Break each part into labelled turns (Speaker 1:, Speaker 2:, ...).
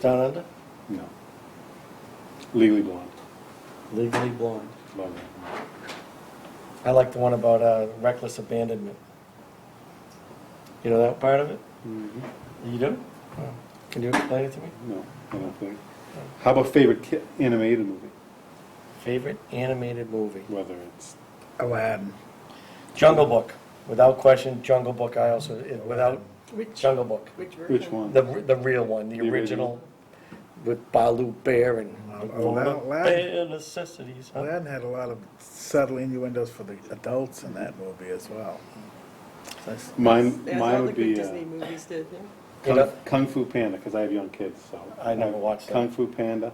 Speaker 1: Down Under?
Speaker 2: No. Legally Blonde.
Speaker 1: Legally Blonde.
Speaker 2: Love that.
Speaker 1: I like the one about uh, reckless abandonment. You know that part of it?
Speaker 2: one.
Speaker 1: You do? Oh. Can you explain it to me?
Speaker 2: No, I don't think. How about favorite ki- animated movie?
Speaker 1: Favorite animated movie?
Speaker 2: Whether it's,
Speaker 3: Aladdin.
Speaker 1: Jungle Book. Without question, Jungle Book. I also it- without
Speaker 4: Which,
Speaker 1: Jungle Book,
Speaker 4: which version?
Speaker 2: which one?
Speaker 1: the the real one, the,
Speaker 2: The original?
Speaker 1: original, with Balu Bear and
Speaker 3: Oh, Aladdin- Aladdin-
Speaker 1: Bear necessities. Huh?
Speaker 3: Aladdin had a lot of subtle innuendos for the adults in that movie as well. That's-
Speaker 2: Mine,
Speaker 4: Yeah,
Speaker 2: mine
Speaker 4: all the
Speaker 2: would
Speaker 4: good
Speaker 2: be uh,
Speaker 4: Disney movies did, yeah.
Speaker 1: You
Speaker 2: Kung
Speaker 1: know,
Speaker 2: Kung Fu Panda, because I have young kids, so.
Speaker 1: I never watched that. Mm.
Speaker 2: Kung Fu Panda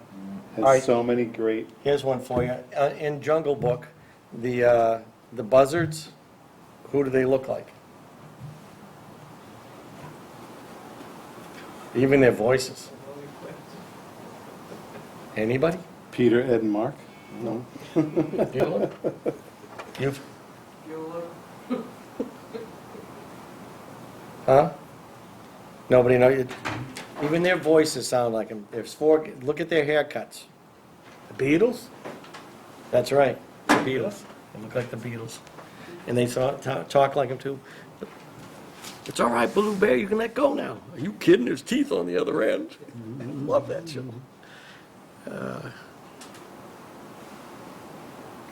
Speaker 1: Alright.
Speaker 2: has so many great,
Speaker 1: Here's one for you. Uh, in Jungle Book, the uh, the buzzards, who do they look like? Even their voices. Anybody?
Speaker 2: Peter, Ed, and Mark? No?
Speaker 1: You? You've, huh? Nobody know you. Even their voices sound like them. There's four. Look at their haircuts.
Speaker 3: The Beatles?
Speaker 1: That's right, the Beatles. They look like the Beatles. And they talk, talk- talk like them too. It's all right, Blue Bear, you can let go now. Are you kidding? There's teeth on the other end. I Love that show.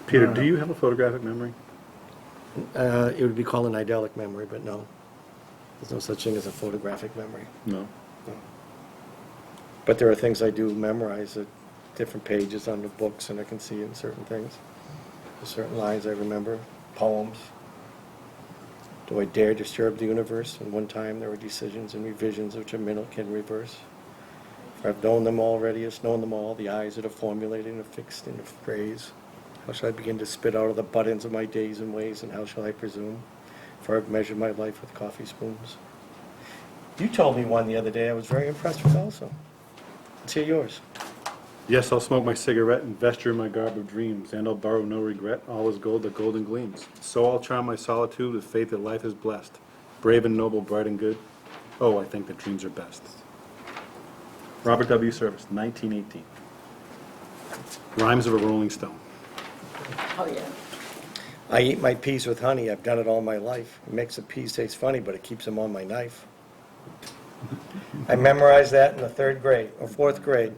Speaker 2: Peter,
Speaker 1: Uh-huh.
Speaker 2: do you have a photographic memory?
Speaker 1: Uh, It would be called an idyllic memory, but no. There's no such thing as a photographic memory.
Speaker 2: No.
Speaker 1: But there are things I do memorize at different pages on the books, and I can see in certain things. There's Certain lines I remember, poems. Do I dare disturb the universe? And one time there were decisions and revisions which a minute can reverse. For I've known them already, it's known them all, the eyes that are formulated and fixed in a phrase. How shall I begin to spit out of the buttons of my days and ways, and how shall I presume? For I've measured my life with coffee spoons. You told me one the other day I was very impressed with also. Let's hear yours.
Speaker 2: Yes, I'll smoke my cigarette and vesture in my garb of dreams, and I'll borrow no regret, all is gold that golden gleams. So I'll charm my solitude with faith that life is blessed, brave and noble, bright and good. Oh, I think that dreams are best. Robert W. Service, 1918. Rhymes of a Rolling Stone.
Speaker 4: Oh, yeah.
Speaker 1: I eat my peas with honey. I've done it all my life. It makes the peas taste funny, but it keeps them on my knife. I memorized that in the third grade or fourth grade.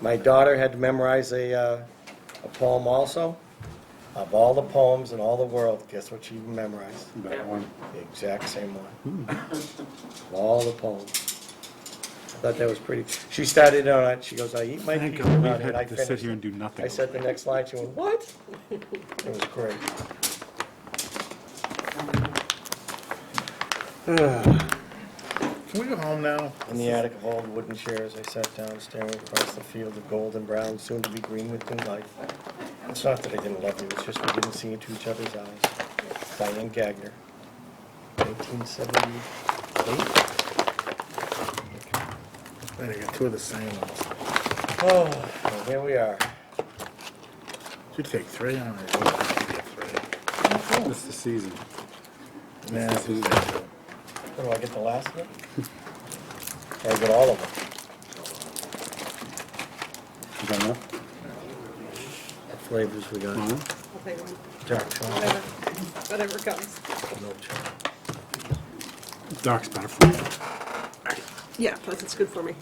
Speaker 1: My daughter had to memorize a, uh, a poem also. Of all the poems in all the world, guess what she memorized?
Speaker 2: That one.
Speaker 1: The exact same one. Of All the poems. I thought that was pretty. She started on it. She goes, "I eat my peas with
Speaker 2: Thank God,
Speaker 1: honey,"
Speaker 2: we
Speaker 1: and I
Speaker 2: had to
Speaker 1: finished.
Speaker 2: sit here
Speaker 1: it.
Speaker 2: and do nothing.
Speaker 1: I said the next line, she went, what? It was great.
Speaker 3: Can we go home now?
Speaker 1: In the attic of old wooden chairs, I sat down, staring across the field of gold and brown, soon to be green with new life. It's not that I didn't love you, it's just we didn't see into each other's eyes. Diane Gagner, 1978.
Speaker 3: Wait, I got two of the same ones.
Speaker 1: Oh, well, here we are.
Speaker 3: Should take three on it. Three.
Speaker 2: It's the season.
Speaker 3: Nah, this is it.
Speaker 1: What, do I get the last of it? Or I get all of them?
Speaker 2: Is that enough?
Speaker 1: What flavors we got?
Speaker 2: Mhm.
Speaker 4: I'll take one.
Speaker 1: Dark chocolate,
Speaker 4: Whatever, whatever comes.
Speaker 1: milk chocolate.
Speaker 2: Dark's better for you.
Speaker 4: Yeah, plus it's good for me.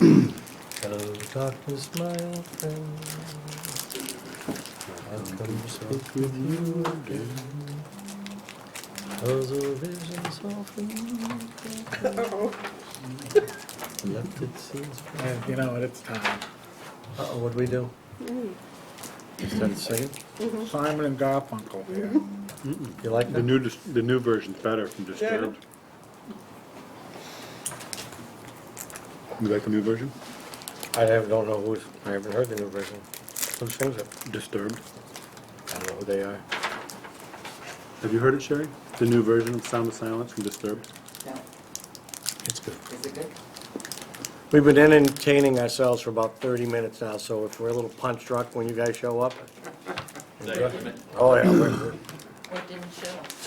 Speaker 1: Hello, darkness, my old friend. I've come to speak with you again. Those are visions often
Speaker 4: Uh-oh.
Speaker 1: left it seems.
Speaker 3: And you know what? It's time.
Speaker 1: Uh-oh, what'd we do? Start singing?
Speaker 3: Simon and Garfunkel here.
Speaker 1: You like
Speaker 2: The
Speaker 1: that?
Speaker 2: new, dis- the new version's better from Disturbed. You like the new version?
Speaker 1: I have- don't know who's, I haven't heard the new version. Who sings it?
Speaker 2: Disturbed.
Speaker 1: I don't know who they are.
Speaker 2: Have you heard it, Sherry? The new version of Sound of Silence from Disturbed?
Speaker 1: It's good.
Speaker 5: Is it good?
Speaker 1: We've been entertaining ourselves for about 30 minutes now, so if we're a little punch drunk when you guys show up. Oh, yeah, we're-
Speaker 5: What didn't show?